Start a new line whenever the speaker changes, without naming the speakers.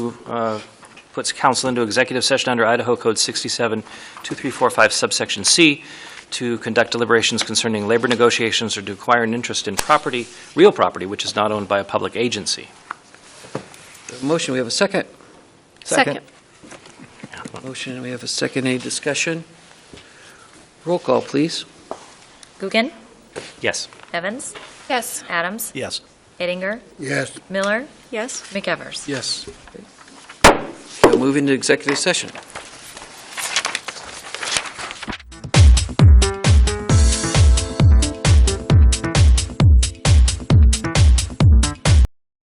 uh, puts council into executive session under Idaho Code 672345 subsection C to conduct deliberations concerning labor negotiations or to acquire an interest in property, real property, which is not owned by a public agency.
Motion, we have a second.
Second.
Motion, we have a second. Any discussion? Roll call, please.
Guggen,
Yes.
Evans,
Yes.
Adams,
Yes.
Ettinger,
Yes.
Miller,
Yes.
McEvers.
Yes.
We'll Move into executive session.